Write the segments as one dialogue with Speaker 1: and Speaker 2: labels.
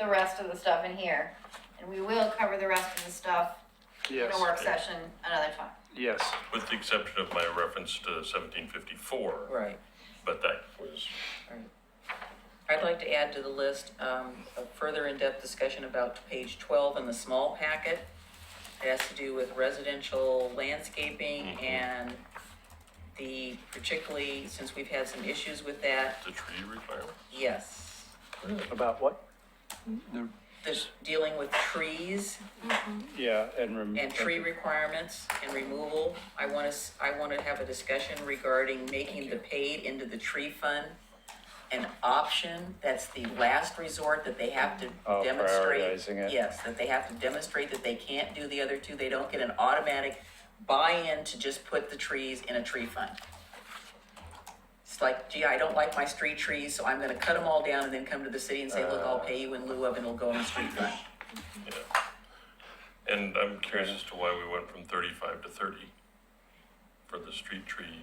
Speaker 1: the rest of the stuff in here. And we will cover the rest of the stuff in a
Speaker 2: Yes,
Speaker 1: work session another time.
Speaker 2: yes.
Speaker 3: with the exception of my reference to seventeen fifty-four,
Speaker 4: Right.
Speaker 3: but that was,
Speaker 4: I'd like to add to the list, um, a further in-depth discussion about page twelve in the small packet. It has to do with residential landscaping
Speaker 3: Mhm.
Speaker 4: and the, particularly since we've had some issues with that,
Speaker 3: the tree requirement.
Speaker 4: yes.
Speaker 2: About what?
Speaker 4: This, dealing with trees
Speaker 2: Yeah, and. rem-
Speaker 4: and tree requirements and removal. I wanna, s- I wanna have a discussion regarding making the paid into the tree fund an option, that's the last resort that they have to
Speaker 2: Oh,
Speaker 4: demonstrate.
Speaker 2: prioritizing it.
Speaker 4: Yes, that they have to demonstrate that they can't do the other two, they don't get an automatic buy-in to just put the trees in a tree fund. It's like, gee, I don't like my street trees, so I'm gonna cut them all down and then come to the city and say, look,
Speaker 2: Uh.
Speaker 4: I'll pay you in lieu of, and it'll go in the street fund.
Speaker 3: Yeah. And I'm curious as to why we went from thirty-five to thirty for the street tree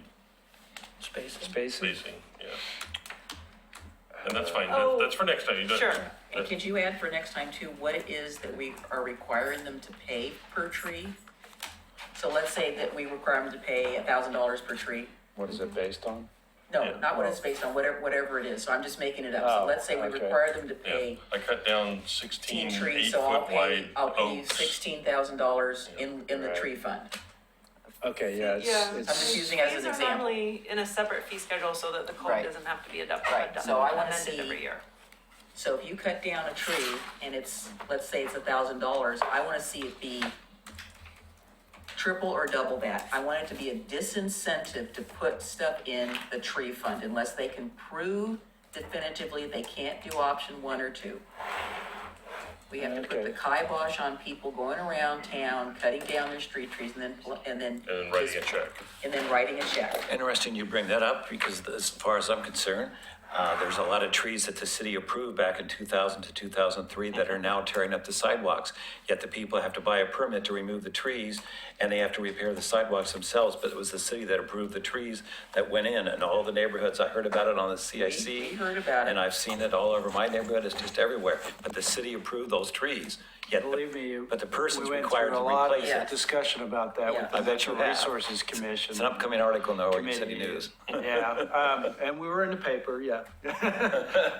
Speaker 5: Spaces.
Speaker 2: Spaces.
Speaker 3: spacing, yeah. And that's fine,
Speaker 4: Oh,
Speaker 3: that- that's for next time, you don't.
Speaker 1: Sure.
Speaker 4: And could you add for next time too, what it is that we are requiring them to pay per tree? So let's say that we require them to pay a thousand dollars per tree.
Speaker 2: What is it based on?
Speaker 4: No,
Speaker 3: Yeah.
Speaker 4: not what it's based on, whatever, whatever it is, so I'm just making it up. So
Speaker 2: Oh,
Speaker 4: let's say we
Speaker 2: okay.
Speaker 4: require them to
Speaker 3: Yeah,
Speaker 4: pay
Speaker 3: I cut down
Speaker 4: ten
Speaker 3: sixteen
Speaker 4: trees, so I'll
Speaker 3: eight-foot
Speaker 4: pay,
Speaker 3: wide
Speaker 4: I'll pay you
Speaker 3: oaks.
Speaker 4: sixteen thousand dollars in, in the
Speaker 2: Right.
Speaker 4: tree fund.
Speaker 2: Okay, yeah,
Speaker 5: Yeah.
Speaker 2: it's,
Speaker 4: I'm just
Speaker 2: it's,
Speaker 4: using as an
Speaker 5: These are
Speaker 4: example.
Speaker 5: normally in a separate fee schedule so that the code
Speaker 4: Right.
Speaker 5: doesn't have to be adopted,
Speaker 4: Right,
Speaker 5: adopted
Speaker 4: so I wanna
Speaker 5: and amended
Speaker 4: see-
Speaker 5: every year.
Speaker 4: So if you cut down a tree and it's, let's say it's a thousand dollars, I wanna see it be triple or double that. I want it to be a disincentive to put stuff in the tree fund unless they can prove definitively they can't do option one or two. We have to put the kibosh on people going around town, cutting down their street trees and then, pl- and then.
Speaker 3: And then writing a check.
Speaker 4: And then writing a check.
Speaker 6: Interesting you bring that up because as far as I'm concerned, uh, there's a lot of trees that the city approved back in 2000 to 2003 that are now tearing up the sidewalks. Yet the people have to buy a permit to remove the trees and they have to repair the sidewalks themselves. But it was the city that approved the trees that went in and all the neighborhoods. I heard about it on the CIC.
Speaker 4: We- we heard about it.
Speaker 6: And I've seen it all over my neighborhood. It's just everywhere. But the city approved those trees. Yet the-
Speaker 7: Believe me,
Speaker 6: But the person's
Speaker 7: we went
Speaker 6: required
Speaker 7: through
Speaker 6: to
Speaker 7: a lot of
Speaker 6: replace it.
Speaker 7: Discussion about that
Speaker 4: Yeah.
Speaker 7: with
Speaker 4: I
Speaker 7: the
Speaker 6: bet you
Speaker 7: Natural
Speaker 6: have.
Speaker 7: Resources Commission.
Speaker 6: It's an upcoming article in the Oregon City
Speaker 7: committee.
Speaker 6: News.
Speaker 7: Yeah, um, and we were in the paper, yeah.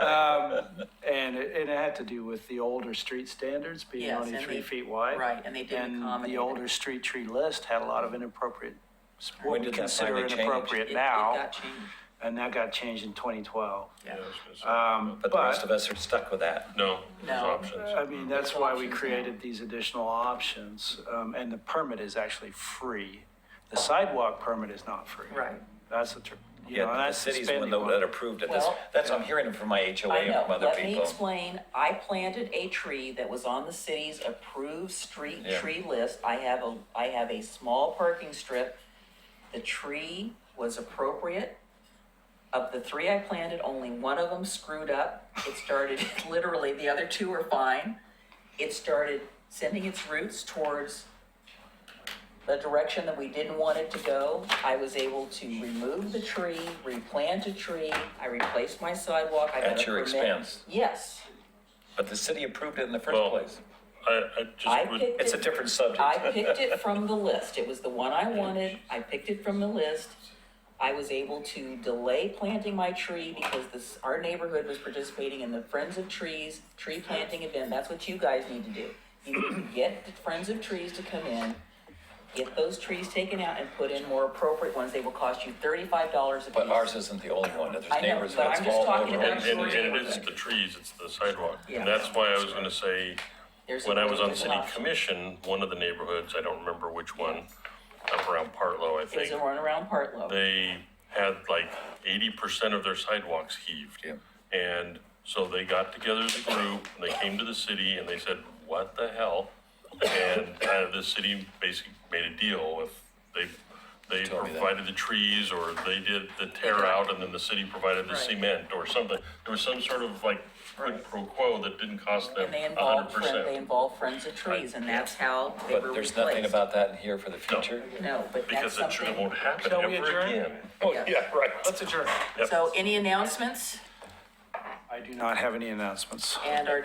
Speaker 7: Um, And it, and it had to do with the older street standards being
Speaker 4: Yes,
Speaker 7: only
Speaker 4: and
Speaker 7: three
Speaker 4: they-
Speaker 7: feet wide.
Speaker 4: right, and they didn't
Speaker 7: And
Speaker 4: accommodate
Speaker 7: the
Speaker 4: it.
Speaker 7: older street tree list had a lot of inappropriate,
Speaker 6: When
Speaker 7: what we
Speaker 6: did that
Speaker 7: consider
Speaker 6: finally change?
Speaker 4: It-
Speaker 7: inappropriate
Speaker 4: it
Speaker 7: now,
Speaker 4: got changed.
Speaker 7: and that got changed in twenty twelve.
Speaker 3: Yeah, I was gonna say.
Speaker 7: Um,
Speaker 6: But the rest of us are stuck with that.
Speaker 3: No, there's
Speaker 4: No.
Speaker 3: options.
Speaker 7: I mean, that's why we
Speaker 4: Options now.
Speaker 7: created these additional options, um, and the permit is actually free. The sidewalk permit is not free.
Speaker 4: Right.
Speaker 7: That's the, tr- you know,
Speaker 6: Yeah, the
Speaker 7: that's the
Speaker 6: city's one
Speaker 7: spending
Speaker 6: that that
Speaker 7: one.
Speaker 6: approved it. That's,
Speaker 4: Well-
Speaker 6: that's, I'm hearing it from my HOA
Speaker 4: I
Speaker 6: and
Speaker 4: know.
Speaker 6: from other
Speaker 4: Let me
Speaker 6: people.
Speaker 4: explain. I planted a tree that was on the city's approved street
Speaker 6: Yeah.
Speaker 4: tree list. I have a, I have a small parking strip. The tree was appropriate. Of the three I planted, only one of them screwed up. It started, literally, the other two are fine. It started sending its roots towards the direction that we didn't want it to go. I was able to remove the tree, replant a tree, I replaced my sidewalk, I got a
Speaker 6: At your
Speaker 4: permit.
Speaker 6: expense.
Speaker 4: Yes,
Speaker 6: But the city approved it in the first
Speaker 3: Well,
Speaker 6: place.
Speaker 3: I, I
Speaker 4: I
Speaker 3: just would,
Speaker 4: picked
Speaker 6: It's a
Speaker 4: it,
Speaker 6: different subject.
Speaker 4: I picked it from the list, it was the one I wanted, I picked it from the list. I was able to delay planting my tree because this, our neighborhood was participating in the Friends of Trees tree planting event, that's what you guys need to do. You need to get the Friends of Trees to come in, get those trees taken out and put in more appropriate ones, they will cost you thirty-five dollars a piece.
Speaker 6: But ours isn't the only one. There's
Speaker 4: I know,
Speaker 6: neighbors
Speaker 4: but
Speaker 6: that's
Speaker 4: I'm just
Speaker 6: all
Speaker 4: talking
Speaker 6: over.
Speaker 4: about
Speaker 3: and, and
Speaker 6: it.
Speaker 3: and it is the trees, it's the sidewalk.
Speaker 4: Yeah.
Speaker 3: And that's why I was gonna say,
Speaker 4: There's a
Speaker 3: when I was on
Speaker 4: really
Speaker 3: city
Speaker 4: good option.
Speaker 3: commission, one of the neighborhoods, I don't remember which one, up around Partlow, I
Speaker 4: It was
Speaker 3: think,
Speaker 4: a runaround Partlow.
Speaker 3: they had like eighty percent of their sidewalks heaved.
Speaker 6: Yeah.
Speaker 3: And so they got together as a group, and they came to the city and they said, what the hell? And, uh, the city basically made a deal with, they, they
Speaker 6: told me that.
Speaker 3: provided the trees, or they did the tear out, and then the city provided the
Speaker 4: Right.
Speaker 3: cement, or something. There was some sort of like quid
Speaker 4: Right.
Speaker 3: pro quo that didn't cost them
Speaker 4: And they
Speaker 3: a hundred
Speaker 4: involved, friend-
Speaker 3: percent.
Speaker 4: they involved Friends of Trees, and that's how they were
Speaker 6: But
Speaker 4: replaced.
Speaker 6: there's nothing about that in here for the future.
Speaker 4: No, but that's
Speaker 3: Because it sure
Speaker 4: something,
Speaker 3: won't happen
Speaker 7: Shall
Speaker 3: ever
Speaker 7: we adjourn?
Speaker 3: again. Oh,
Speaker 4: Yeah.
Speaker 3: yeah, right.
Speaker 7: Let's adjourn.
Speaker 3: Yep.
Speaker 4: so any announcements,
Speaker 7: I do not have any announcements.
Speaker 4: and our